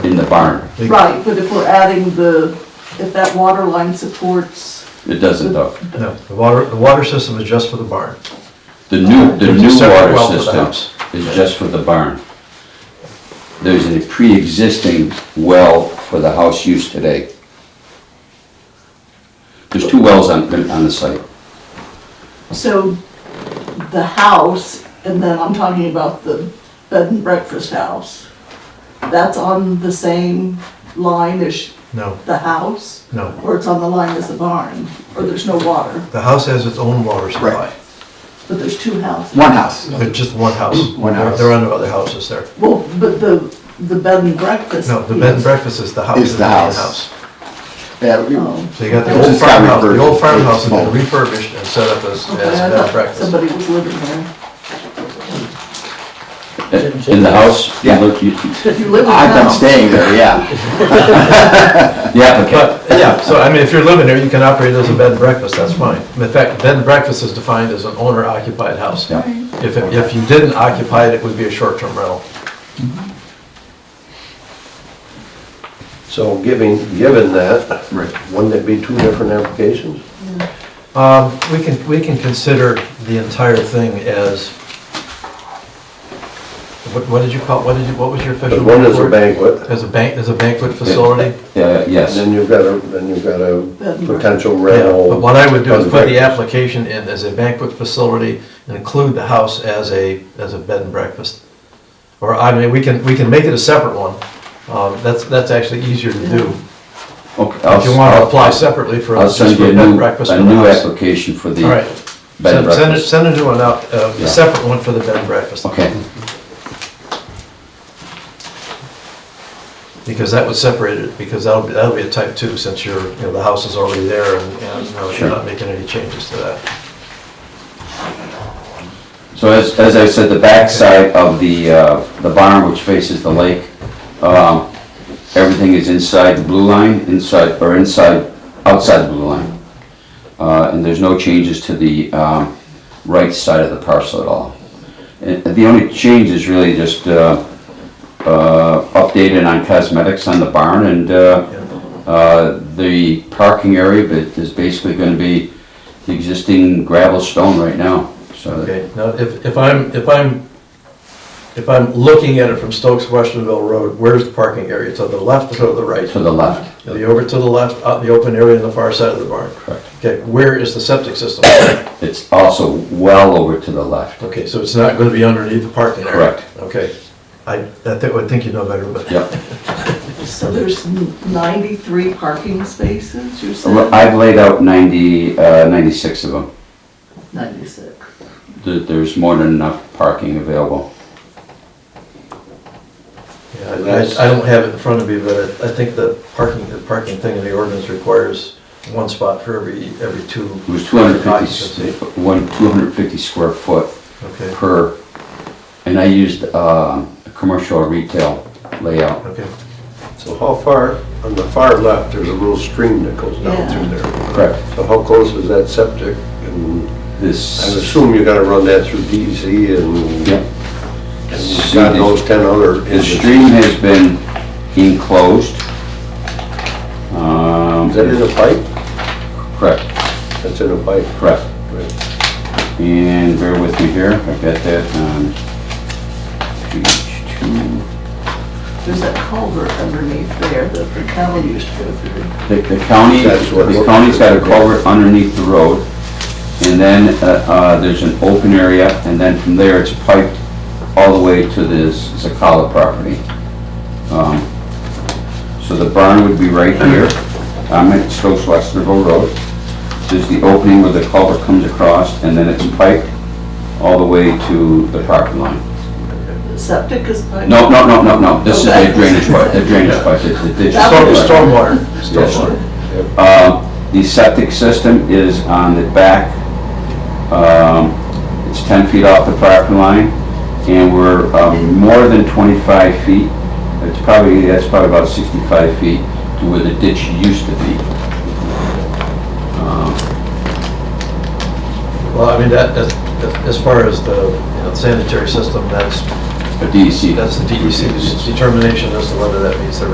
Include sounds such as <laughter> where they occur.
the barn. Right, but if we're adding the, if that water line supports, It doesn't though. No, the water, the water system is just for the barn. The new, the There's a new water separate well for the system house. is just for the barn. There's a pre-existing well for the house use today. There's two wells on, on the site. so the house, and then I'm talking about the bed and breakfast house, that's on the same line as No, the house? no. Or it's on the line as the barn, or there's no water, The house has its own water supply. Right. but there's two houses? One house. There's just one house. One house. There are no other houses there. Well, but the, the bed and breakfast. No, the bed and breakfast is the house. Is the main house. Yeah, we- Oh. So you got the It old just got farmhouse, the old refurbished. farmhouse has been Small. refurbished and set up as, as Oh, Okay, I bed and thought breakfast. Somebody was living there. In the house? Yeah. Look, you- If you live in I've been town- staying there, yeah. <laughs> The applicant, But, yeah, so I mean, if you're living there, you can operate it as a bed and breakfast, that's fine. In fact, bed and breakfast is defined as an owner occupied house. Yeah. If, it- if you didn't occupy it, it would be a short-term rental. So giving, given that, Right. wouldn't it be two different applications? Um, we can, we can consider the entire thing as, what, what did you call, what did you, what was your official? Because one is a word? banquet, As a bank, as a banquet facility? uh, yes. then you've got a, then you've got a Bed and potential Yeah, rental. but what I would do is put the application. application in as a banquet facility and include the house as a, as a bed and breakfast. Or, I mean, we can, we can make it a separate one, um, that's, that's actually easier to do. Okay, If you I'll- wanna I'll- apply separately for, I'll just for send you a bed and new, breakfast for a the new house. application for the All right. bed and Send- send it- breakfast. Send a new one out, uh, Yeah. a separate one for the bed and breakfast. Okay, Because that would separate it, because that'll, be- that'll be a type two, since you're, you know, the house is already there and, and you know, Sure. you're not making any changes to that. so as, as I said, the backside of the, uh, the barn, which faces the lake, um, everything is inside the blue line, inside, or inside, outside the blue line. Uh, and there's no changes to the, um, right side of the parcel at all. And the only change is really just, uh, uh, updated on cosmetics on the barn and, uh, Uh, The parking area but is basically going to be the existing gravel stone right now, so. Okay, now, if, if I'm, if I'm, if I'm looking at it from Stokes Westernville Road, where's the parking area? To the left or to the right? To the left, Are you over to the left, out in the open area on the far side of the barn? Correct. Okay, where is the septic <coughs> system? it's also well over to the left. Okay, so it's not gonna be underneath the parking area? Correct. Okay, I, I think, I think you know better, but. Yep. So there's n- 93 parking spaces, you said? I've laid out 90, uh, 96 of them. 96. There- There's more than enough parking available. Yeah, I, I don't have it in front of me, but I I think the parking, the parking thing in the ordinance requires one spot for every, every two. It was 250, occupancy. s- one- 250 square foot Okay, per, and I used uh, a commercial or retail layout. okay. So how far, on the far left, there's a little stream that goes down Yeah. through there. Correct. So how close is that septic? And I This, assume you gotta run that through DEC and yep. and God knows ten other. The stream has been enclosed. Um, Is that in a pipe? Correct, That's in a pipe. correct. Right. And bear with me here, I've got that on page two. There's that culvert underneath there that the county used to go through. The the county, That's what- the county's got a culvert underneath the road, and then uh, uh, there's an open area, and then from there, it's piped all the way to this Zacala property. Um, So the barn would be right here, I'm at Stokes Westerville Road. There's the opening where the culvert comes across, and then it's piped all the way to the parking line. The septic is... by- No, no, no, no, no, this is a drainage pipe, a drainage pipe, it's a ditch. Storm- That Stormwater, Yes, sir. stormwater. Uh, The septic system is on the back, um, it's 10 feet off the property line, and we're um, more than 25 feet, it's probably, that's probably about 65 feet to where the ditch used to be. Well, I mean, that, as, as far as the you know, sanitary system, that's, A E DEC. that's the DEC's E determination as to whether that meets their